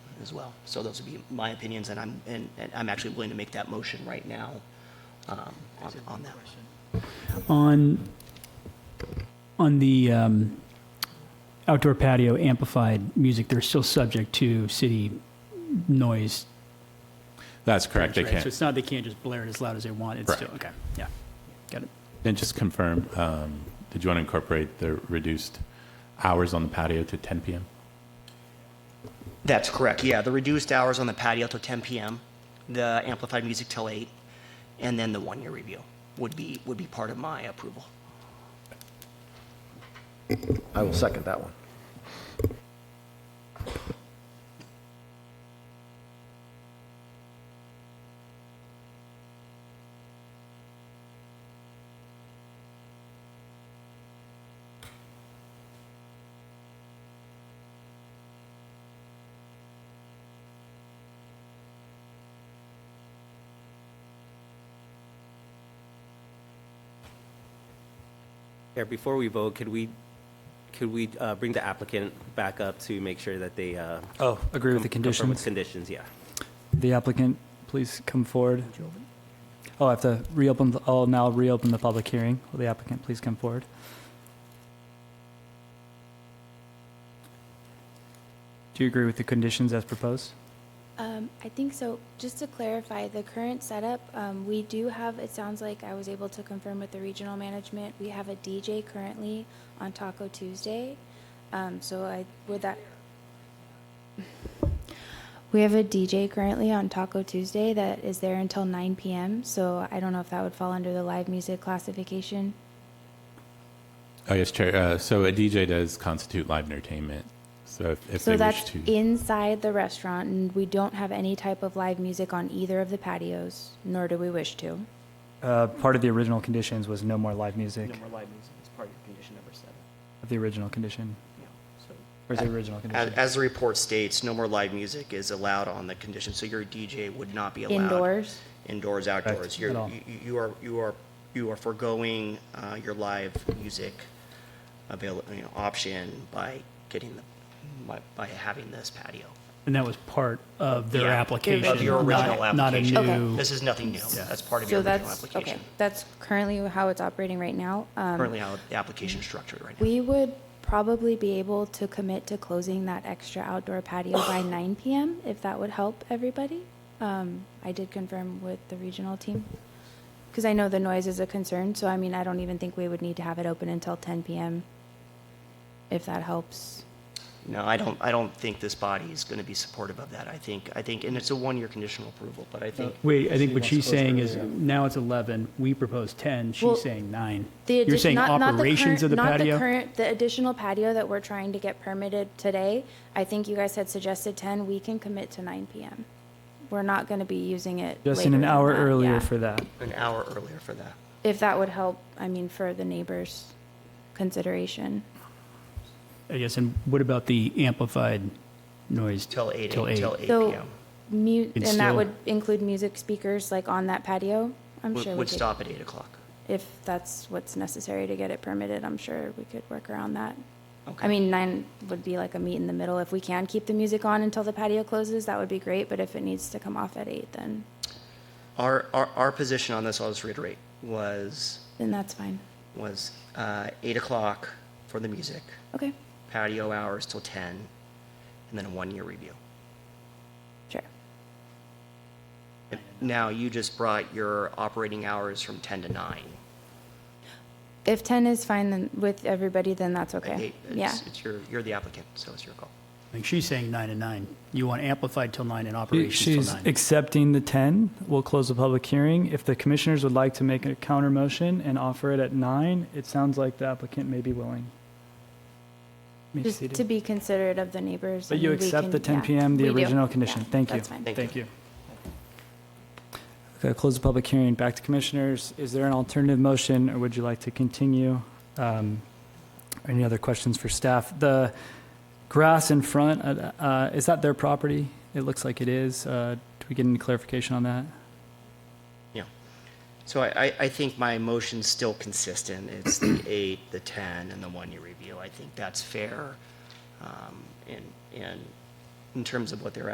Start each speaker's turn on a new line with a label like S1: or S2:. S1: as well. So those would be my opinions, and I'm, and and I'm actually willing to make that motion right now um, on on that.
S2: On, on the um, outdoor patio amplified music, they're still subject to city noise.
S3: That's correct, they
S2: right? So
S3: can't.
S2: it's not, they can't just blare it as loud as they want, it's still, okay, yeah, got it.
S3: And just confirm, um, did you want to incorporate the reduced hours on the patio to 10 PM?
S1: That's correct, yeah. The reduced hours on the patio till 10 PM, the amplified music till 8, and then the one-year review would be, would be part of my approval.
S4: I will second that one.
S5: Yeah, before we vote, could we, could we uh, bring the applicant back up to make sure that they? uh,
S6: Oh, agree with the
S5: confirm with
S6: conditions.
S5: Conditions, yeah.
S6: The applicant, please come forward. Oh, I have to reopen, the- I'll now reopen the public hearing. Will the applicant please come forward? Do you agree with the conditions as proposed?
S7: Um, I think so. Just to clarify, the current setup, um, we do have, it sounds like I was able to confirm with the regional management, we have a DJ currently on Taco Tuesday. Um, so I, would that? We have a DJ currently on Taco Tuesday that is there until nine PM, so I don't know if that would fall under the live music classification.
S3: Oh, yes, Chair. Uh, So a DJ does constitute live entertainment, so if- if
S7: So
S3: they wish
S7: that's
S3: to.
S7: inside the restaurant and we don't have any type of live music on either of the patios, nor do we wish to.
S6: Uh, Part of the original conditions was no more live music
S1: live music is part of condition number seven.
S6: of the original condition. Or is the original
S1: As,
S6: condition?
S1: as the report states, no more live music is allowed on the condition, so your DJ would not be allowed.
S7: Indoors?
S1: Indoors, outdoors. You're,
S6: at all.
S1: you- you are, you are, you are foregoing uh, your live music avail, you know, option by getting the, by, by having this patio.
S2: And that was part of their
S1: Yeah,
S2: application.
S1: Of your original
S2: not- not a
S1: application.
S2: new-
S1: This is nothing new. That's part of your
S7: So
S1: original
S7: that's, okay,
S1: application.
S7: that's currently how it's operating right now. Um,
S1: Currently how the application is structured right now.
S7: We would probably be able to commit to closing that extra outdoor patio by nine PM, if that would help everybody. Um, I did confirm with the regional team, because I know the noise is a concern, so I mean, I don't even think we would need to have it open until ten PM, if that helps.
S1: No, I don't, I don't think this body is going to be supportive of that. I think, I think, and it's a one-year conditional approval, but I think
S2: Wait, I think what she's saying is, now it's 11, we propose 10,
S7: Well,
S2: she's saying 9.
S7: The
S2: You're
S7: addi-
S2: saying
S7: not- not the
S2: operations
S7: current-
S2: of the
S7: Not the
S2: patio?
S7: current, the additional patio that we're trying to get permitted today. I think you guys had suggested 10, we can commit to 9 PM. We're not going to be using it
S6: Just in an
S7: later
S6: hour
S7: than that, yeah.
S6: earlier for that.
S1: an hour earlier for that.
S7: If that would help, I mean, for the neighbors' consideration.
S2: I guess, and what about the amplified noise?
S1: Till eight,
S2: Till
S1: till eight
S7: So,
S1: PM.
S7: Mu,
S2: It's
S7: and that
S2: still-
S7: would include music speakers like on that patio? I'm
S1: Would
S7: sure we
S1: would
S7: could,
S1: stop at eight o'clock.
S7: if that's what's necessary to get it permitted, I'm sure we could work around that.
S1: Okay.
S7: I mean, nine would be like a meet in the middle. If we can keep the music on until the patio closes, that would be great, but if it needs to come off at eight, then,
S1: Our, our, our position on this, I'll just reiterate, was,
S7: then that's fine.
S1: was uh, eight o'clock for the music,
S7: Okay,
S1: patio hours till ten, and then a one-year review.
S7: sure.
S1: Now, you just brought your operating hours from ten to nine.
S7: If ten is fine then with everybody, then that's
S1: Like,
S7: okay.
S1: eight-
S7: Yeah,
S1: It's, it's your, you're the applicant, so it's your call.
S2: I think she's saying 9 and 9. You want amplified till 9 and operations
S6: She's
S2: till 9.
S6: accepting the 10. We'll close the public hearing. If the commissioners would like to make a counter motion and offer it at 9, it sounds like the applicant may be willing. Be
S7: just
S6: seated.
S7: to be considerate of the neighbors.
S6: But
S7: I
S6: you
S7: mean, we
S6: accept
S7: can-
S6: the 10
S7: yeah,
S6: PM, the
S7: we do.
S6: original
S7: Yeah,
S6: condition. Thank you.
S7: That's fine.
S2: Thank you.
S6: Okay, close the public hearing. Back to commissioners. Is there an alternative motion, or would you like to continue? Um, Any other questions for staff? The grass in front, uh, uh, is that their property? It looks like it is. Uh, Do we get any clarification on that?
S1: Yeah. So I, I, I think my motion's still consistent. It's the eight, the ten, and the one-year review. I think that's fair, um, in, in, in terms of what they're